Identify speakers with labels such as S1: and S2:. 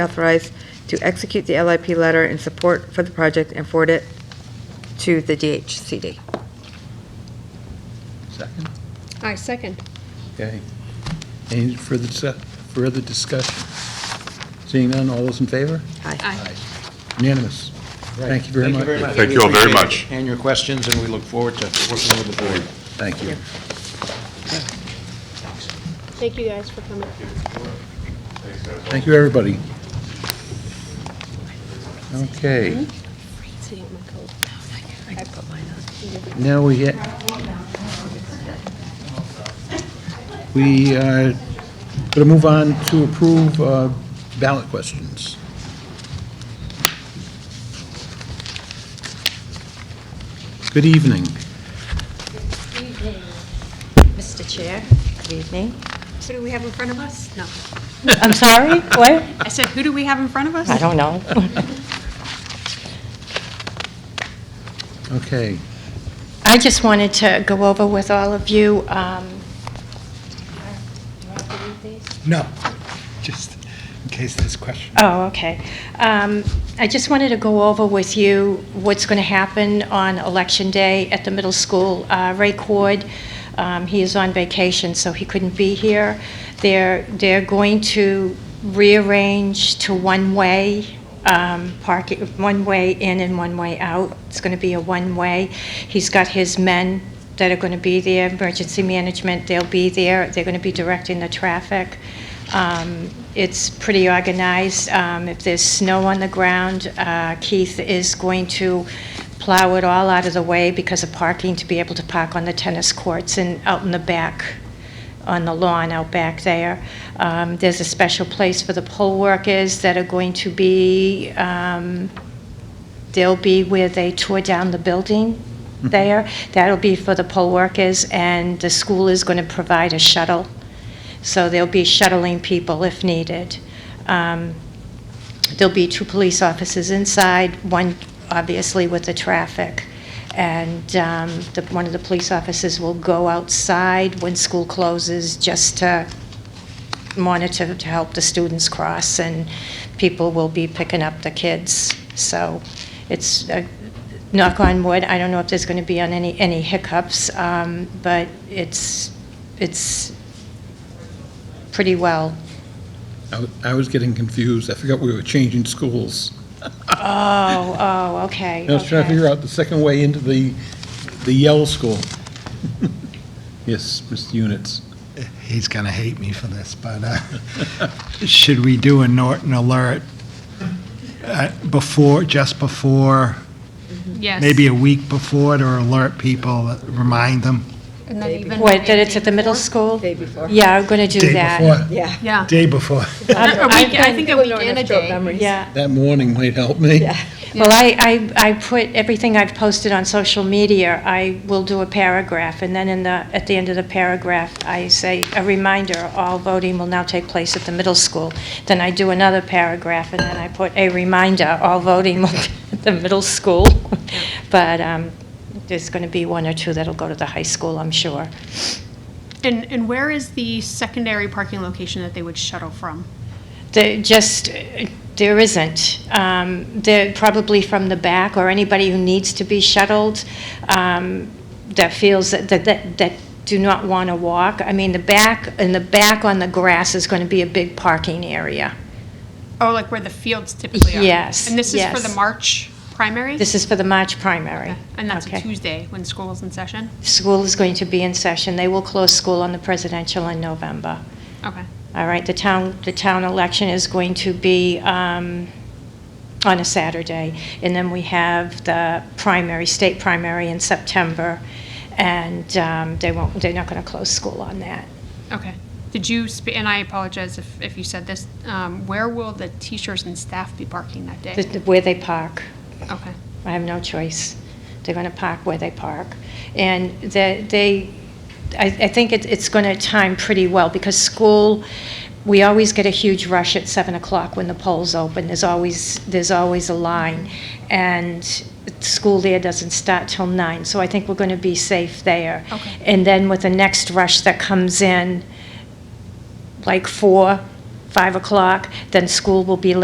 S1: authorized to execute the LIP letter in support for the project and forward it to the DHCD.
S2: Second.
S3: I second.
S2: Okay. Any further, dis- further discussion? Seeing none, all those in favor?
S1: Aye.
S3: Aye.
S2: Unanimous. Thank you very much.
S4: Thank you all very
S5: We appreciate
S4: much.
S5: it And your questions, and we look forward to working with the board.
S2: Thank you.
S3: Thank you guys for coming.
S2: Thank you, everybody. Okay,
S3: Sitting in my coat. I put mine
S2: now we ha we are going to move on to approve uh, ballot questions. Good evening.
S6: Evening, Mr. Chair.
S1: Good evening.
S6: Who do we have in front of us? No.
S1: I'm sorry, what?
S6: I said, who do we have in front of us?
S1: I don't know.
S2: Okay.
S7: I just wanted to go over with all of you, um,
S5: No, just in case there's questions.
S7: oh, okay. Um, I just wanted to go over with you what's going to happen on Election Day at the middle school. Uh, Ray Cord, um, he is on vacation, so he couldn't be here. They're, they're going to rearrange to one-way um, parking, one-way in and one-way out. It's going to be a one-way. He's got his men that are going to be there, emergency management, they'll be there, they're going to be directing the traffic. Um, It's pretty organized. Um, If there's snow on the ground, uh, Keith is going to plow it all out of the way because of parking, to be able to park on the tennis courts and out in the back, on the lawn out back there. Um, There's a special place for the poll workers that are going to be, um, they'll be where they tore down the building there. That'll be for the poll workers, and the school is going to provide a shuttle. So they'll be shuttling people if needed. Um, There'll be two police officers inside, one obviously with the traffic. And um, the- one of the police officers will go outside when school closes just to monitor, to help the students cross, and people will be picking up the kids. So it's, uh, knock on wood, I don't know if there's going to be on any, any hiccups, um, but it's, it's pretty well.
S2: I w- I was getting confused. I forgot we were changing schools.
S7: Oh, oh, okay.
S2: I was trying to
S7: okay.
S2: figure out the second way into the, the Yell School. Yes, Mr. Units.
S8: He's going to hate me for this, but uh, should we do a Norton alert uh, before, just before,
S6: Yes.
S8: maybe a week before to alert people, remind them?
S6: And then even
S7: What, that it's
S6: the
S7: at the middle school?
S1: Day before.
S7: Yeah, I'm going to do
S8: Day
S7: that.
S8: before?
S1: Yeah.
S6: Yeah.
S8: Day before.
S6: Not a
S7: I've-
S6: week-
S7: I've
S6: I think a week and a day.
S7: Yeah.
S2: That warning might help me.
S1: Yeah.
S7: Well, I, I, I put everything I've posted on social media, I will do a paragraph, and then in the, at the end of the paragraph, I say, a reminder, all voting will now take place at the middle school. Then I do another paragraph, and then I put a reminder, all voting will be at the middle school. But, um, there's going to be one or two that'll go to the high school, I'm sure.
S6: And, and where is the secondary parking location that they would shuttle from?
S7: There just, uh, there isn't. Um, They're probably from the back, or anybody who needs to be shuttled um, that feels, that, that- that, that do not want to walk. I mean, the back, and the back on the grass is going to be a big parking area.
S6: Oh, like where the fields typically are?
S7: Yes,
S6: And this is for the
S7: yes.
S6: March primary?
S7: This is for the March primary.
S6: Okay. And that's a
S7: Okay.
S6: Tuesday when school is in session?
S7: School is going to be in session. They will close school on the presidential in November.
S6: Okay.
S7: All right, the town, the town election is going to be um, on a Saturday, and then we have the primary, state primary in September, and um, they won't, they're not going to close school on that.
S6: Okay. Did you, sp- and I apologize if, if you said this, um, where will the teachers and staff be parking that
S7: The-
S6: day?
S7: the- Where they park,
S6: Okay.
S7: I have no choice. They're going to park where they park. And that they, I, I think it- it's going to time pretty well, because school, we always get a huge rush at 7 o'clock when the polls open. There's always, there's always a line. And school there doesn't start till 9, so I think we're going to be safe there.
S6: Okay.
S7: And then with the next rush that comes in, like 4, 5 o'clock, then school will be